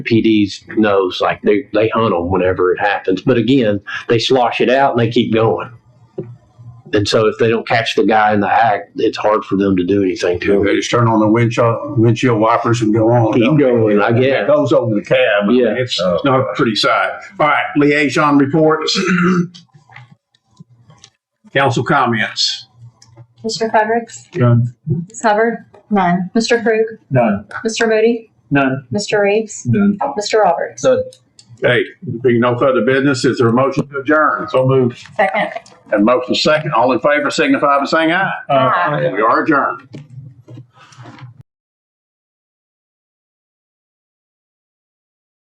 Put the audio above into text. PD's knows like they they hunt them whenever it happens. But again, they slosh it out and they keep going. And so if they don't catch the guy in the act, it's hard for them to do anything to They it. just turn on the windshield, windshield wipers and go on. Keep going, I It guess. goes over the cab. Yeah. It's it's not a pretty sight. All right, liaison reports. Council comments. Mr. Fredericks? None. Ms. Hubbard? None. Mr. Krug? None. Mr. Moody? None. Mr. Reeves? None. Mr. Roberts? Hey, being no further business, is there a motion to adjourn? So moved. Second. And motion second, all in favor, signify by saying aye. Uh, We are adjourned.